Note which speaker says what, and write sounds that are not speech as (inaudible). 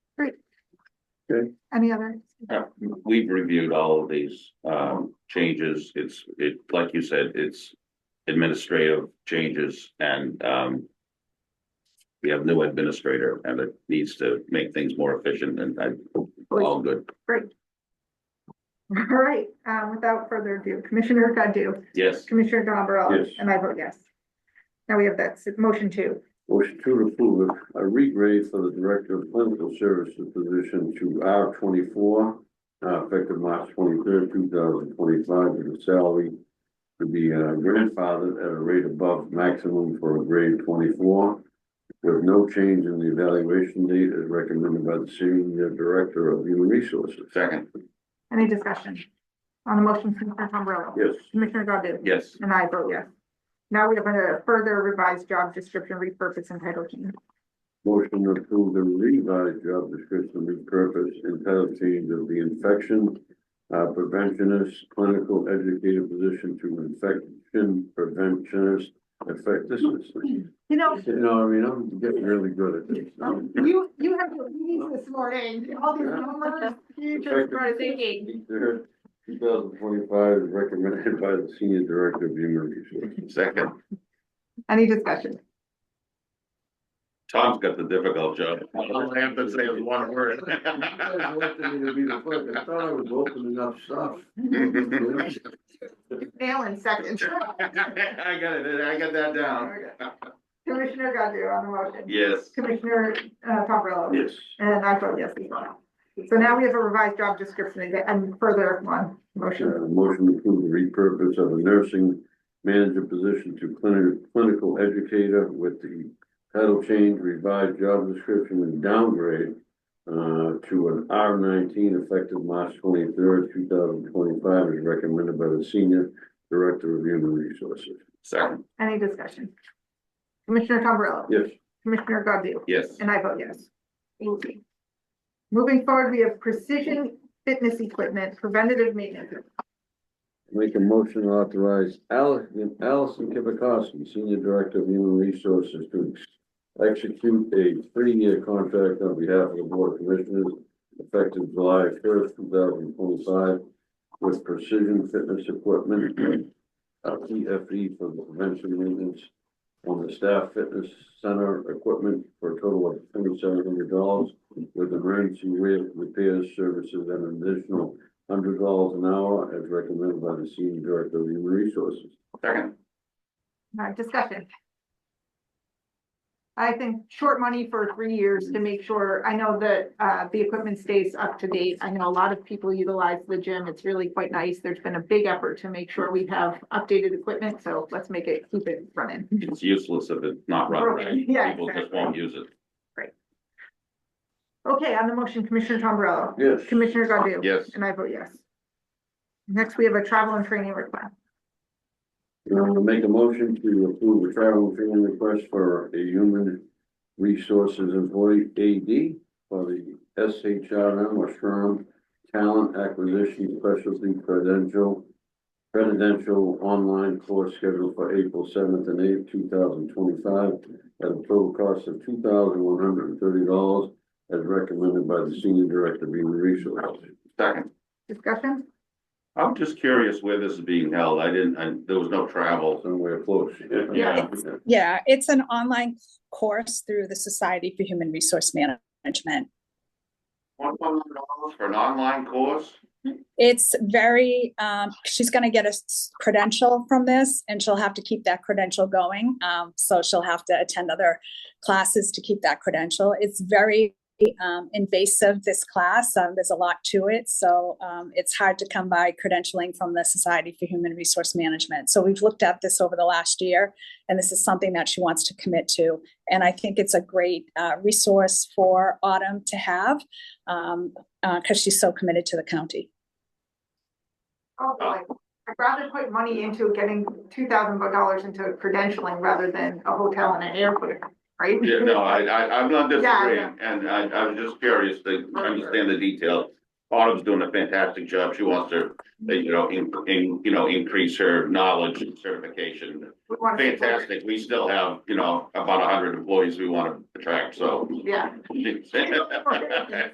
Speaker 1: Good.
Speaker 2: Any other?
Speaker 3: Yeah, we've reviewed all of these um changes. It's it, like you said, it's administrative changes and um. We have new administrator and it needs to make things more efficient and I, all good.
Speaker 2: All right, um, without further ado, Commissioner Godu,
Speaker 3: Yes,
Speaker 2: Commissioner Gombrowski,
Speaker 1: Yes.
Speaker 2: and I vote yes. Now we have that, s- motion two.
Speaker 1: Motion to approve a regrade for the Director of Clinical Services position to R twenty-four, uh, effective March twenty-third, two thousand twenty-five, with a salary to be uh, grandfathered at a rate above maximum for a grade twenty-four, with no change in the evaluation date as recommended by the Senior Director of Human Resources.
Speaker 3: second,
Speaker 2: Any discussion? On the motion, Commissioner Tombrilla.
Speaker 1: Yes.
Speaker 2: Commissioner Godu.
Speaker 3: yes,
Speaker 2: And I vote yes. Now we have a further revised job description, repurpose and title change.
Speaker 1: Motion to approve the revised job description repurpose and title change of the infection uh, preventionist clinical educator position to infection preventionist effectiveness. You
Speaker 2: You know, um,
Speaker 1: know, I mean, I'm getting really good at this.
Speaker 2: Oh, you, you have your meetings this morning, all these
Speaker 1: (laughs)
Speaker 2: numbers, you just started thinking.
Speaker 1: Two thousand twenty-five is recommended by the Senior Director of Human
Speaker 3: (laughs)
Speaker 1: Resources.
Speaker 3: second.
Speaker 2: Any discussion?
Speaker 3: Tom's got the difficult job.
Speaker 1: All I have to say is one
Speaker 3: word. (laughs)
Speaker 1: You guys wanted me to be the clerk. I thought I was opening up stuff.
Speaker 2: Nailing seconds.
Speaker 3: (laughs) I got it, I got that down.
Speaker 2: Commissioner Godu on the motion.
Speaker 3: Yes,
Speaker 2: Commissioner, uh, Tombrilla.
Speaker 1: Yes.
Speaker 2: And I vote yes as well. So now we have a revised job description and- and further one motion.
Speaker 1: Uh, motion to approve the repurpose of a nursing manager position to clinical, clinical educator with the title change, revised job description and downgrade uh, to an R nineteen effective March twenty-third, two thousand twenty-five, as recommended by the Senior Director of Human Resources.
Speaker 3: second,
Speaker 2: Any discussion? Commissioner Tombrilla.
Speaker 1: Yes.
Speaker 2: Commissioner Godu.
Speaker 3: yes,
Speaker 2: And I vote yes. Thank you. Moving forward, we have precision fitness equipment, preventative maintenance.
Speaker 1: Make a motion to authorize Allison, Allison Kibakowski, Senior Director of Human Resources, to ex- execute a three-year contract on behalf of the Board of Commissioners effective July first, two thousand twenty-five with Precision Fitness Equipment, uh, PFE for the prevention maintenance on the staff fitness center equipment for a total of twenty-seven hundred dollars with emergency re- repairs services and an additional hundred dollars an hour as recommended by the senior director of human resources.
Speaker 3: second,
Speaker 2: Uh, discussion. I think short money for three years to make sure, I know that, uh, the equipment stays up to date. I know a lot of people utilize the gym. It's really quite nice. There's been a big effort to make sure we have updated equipment, so let's make it, keep it running.
Speaker 3: it's useless if it's not run right.
Speaker 2: Yeah,
Speaker 3: People just
Speaker 2: exactly.
Speaker 3: won't use it.
Speaker 2: Okay, on the motion, Commissioner Tombrello.
Speaker 1: Yes.
Speaker 2: Commissioner Godu.
Speaker 3: Yes.
Speaker 2: And I vote yes. Next, we have a travel and training request.
Speaker 1: I'm gonna make a motion to approve a travel and training request for a human resources employee AD for the SHRM or SHRM Talent Acquisition Specialty Credential Credential Online Course scheduled for April seventh and eighth, two thousand twenty-five at a total cost of two thousand one hundred and thirty dollars as recommended by the Senior Director of Human Resources.
Speaker 3: Second,
Speaker 2: Discussion?
Speaker 3: I'm just curious where this is being held. I didn't, I, there was no travel.
Speaker 1: somewhere close.
Speaker 3: Yeah.
Speaker 4: Yeah, it's an online course through the Society for Human Resource Management.
Speaker 3: One hundred dollars for an online course?
Speaker 4: It's very, um, she's gonna get a s- credential from this and she'll have to keep that credential going. Um, so she'll have to attend other classes to keep that credential. It's very, um, invasive, this class. Um, there's a lot to it. So, um, it's hard to come by credentialing from the Society for Human Resource Management. So we've looked at this over the last year and this is something that she wants to commit to. And I think it's a great, uh, resource for Autumn to have, um, uh, cause she's so committed to the county.
Speaker 2: Oh, boy. I'd rather put money into getting two thousand dollars into credentialing rather than a hotel and an airport, right?
Speaker 3: Yeah, no, I, I, I'm not
Speaker 2: Yeah, I
Speaker 3: disagreeing, and I, I was just curious to understand the detail. Autumn's doing a fantastic job. She wants to, uh, you know, in, in, you know, increase her knowledge and certification.
Speaker 2: We wanna support-
Speaker 3: Fantastic. We still have, you know, about hundred employees we want to attract, so.
Speaker 2: Yeah.